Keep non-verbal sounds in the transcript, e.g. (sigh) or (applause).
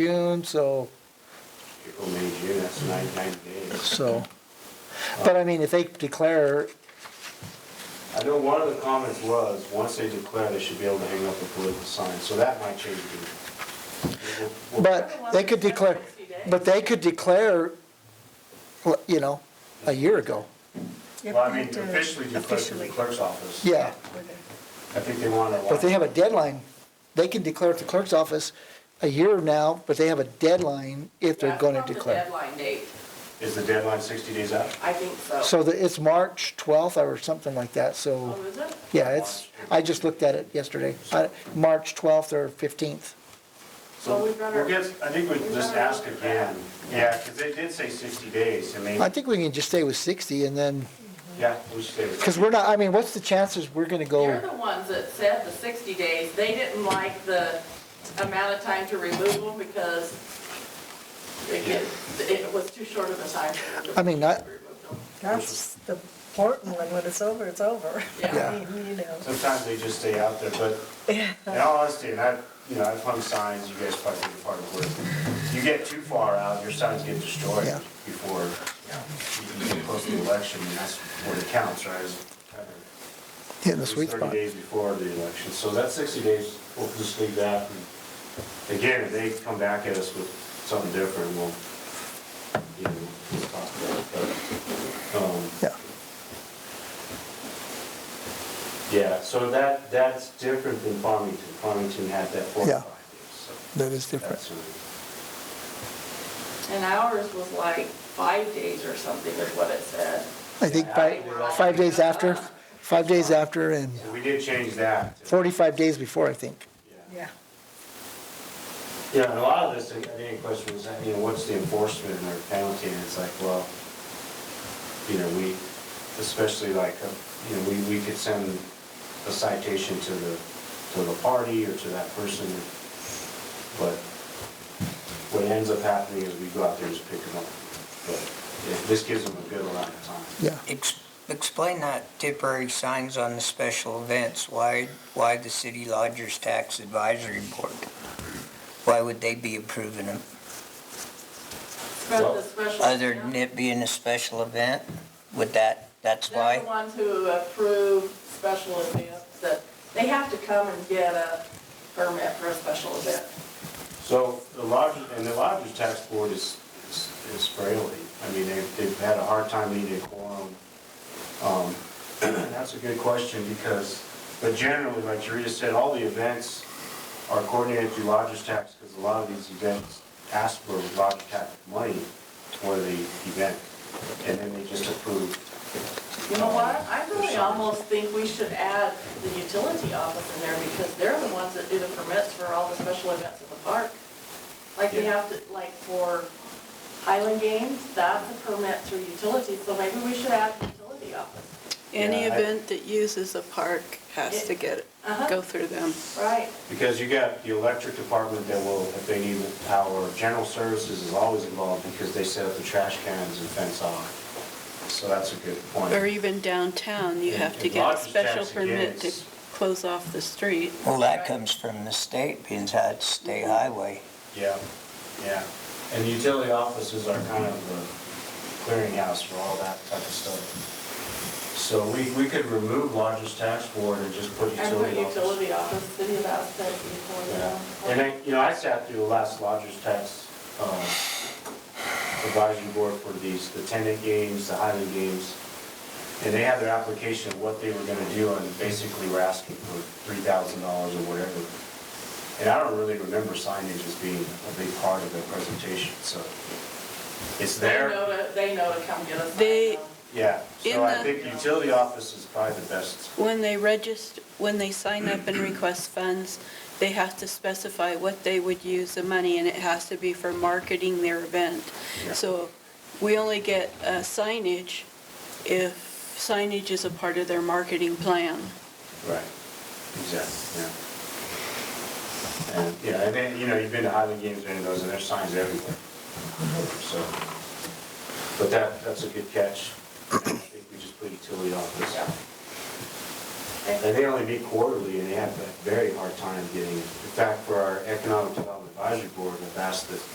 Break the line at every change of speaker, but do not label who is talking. June, so,
April, May, June, that's nine, nine days.
so. But I mean, if they declare,
I know one of the comments was, once they declare, they should be able to hang up a political sign, so that might change again. We'll- we'll-
but they could declare, but they could declare, well, you know, a year ago.
Well, I mean, officially declare to the clerk's office.
Yeah,
I think they want to.
but they have a deadline. They can declare at the clerk's office a year now, but they have a deadline if they're
That's
gonna
not the
declare.
deadline date,
Is the deadline sixty days out?
I think so.
So that, it's March twelfth or something like that, so,
Oh, is it?
yeah, it's, I just looked at it yesterday, I- March twelfth or fifteenth.
So
Well,
we'll
we've got our-
get, I think we
we've
just
got our-
ask again, yeah, because they did say sixty days, I
I
mean,
think we can just stay with sixty and then,
yeah, we should stay with
because we're not, I mean, what's the chances we're gonna go?
They're the ones that said the 60 days, they didn't like the amount of time to remove them because it get- it was too short of a time. to remove
I mean, not-
them.
That's the important one, when it's over, it's over.
Yeah.
(laughs) I mean, You know,
Sometimes they just stay out there, but in all honesty, and I, you know, I've hung signs, you guys probably did part of the work. You get too far out, your signs get destroyed
Yeah.
before, you know, you get close to the election, and that's what it counts, right? is kind of-
Hitting the sweet
it's
spot.
Thirty days before the election, so that sixty days, we'll just leave that. and Again, if they come back at us with something different, we'll, you know, we'll talk about it, but, um,
Yeah,
yeah, so that, that's different than Farmington. Farmington had that
Yeah.
forty-five days, so.
that is different.
That's right.
And ours was like five days or something is what it said.
I think by, five days after, five days after and
So we did change that.
45 days before, I think.
Yeah.
yeah.
Yeah, and a lot of this, I think the question was, you know, what's the enforcement or penalty? And it's like, well, you know, we, especially like, uh, you know, we, we could send a citation to the, to the party or to that person. But what ends up happening is we go out there and just pick them up. But yeah, this gives them a good amount of time.
Yeah.
Ex- Explain that temporary signs on the special events, why, why the city lodgers tax advisory board? Why would they be approving them,
But the special-
other than it being a special event? Would that, that's
They're
why?
the ones who approve special events that, they have to come and get a permit for a special event.
So the lodgers, and the lodgers tax board is, is is frailty. I mean, they've, they've had a hard time meeting a quorum. Um, (clears throat) That's a good question because, but generally, like Rita said, all the events are coordinated through lodgers tax because a lot of these events ask for lodgers tax money for the event. And then they just approve.
You know what, I really almost think we should add the utility office in there because they're the ones that do the permits for all the special events at the park. Like we
Yeah.
have to, like for Highland Games, that's a permit through utility, so maybe we should add the utility office.
Any
Yeah, I-
event that uses a park has to get,
Uh-huh.
go through them.
Right,
Because you got the electric department that will, if they need power, general services is always involved because they set up the trash cans and fence off. So that's a good point.
Or even downtown, you
And-
have to
and
get a
lodging
special
tax,
permit to
yes.
close off the street.
Well, that comes from the state, being that it's state highway.
Yeah, yeah. And the utility offices are kind of the clearinghouse for all that type of stuff. So we, we could remove largest tax board and just put
and put
utility office.
utility office, city of Aspen, before
Yeah,
the.
and I, you know, I sat through the last lodgers tax uh, advisory board for these, the tenant games, the Highland games, and they had their application of what they were gonna do, and basically were asking for three thousand dollars or whatever. And I don't really remember signage as being a big part of their presentation, so it's
They
there,
know to, they know to come get us.
They-
yeah. So
In
I
the-
think utility office is probably the best.
When they register, when they sign up and request funds, they have to specify what they would use the money, and it has to be for marketing their event.
Yeah.
So we only get uh, signage if signage is a part of their marketing plan.
Right, exactly, yeah. And, yeah, and then, you know, you've been to Highland Games, and those, and there's signs everywhere, so. But that, that's a good catch. I think we just put utility office.
Yeah.
And they only meet quarterly, and they have a very hard time getting, in fact, for our economic development advisory board have asked that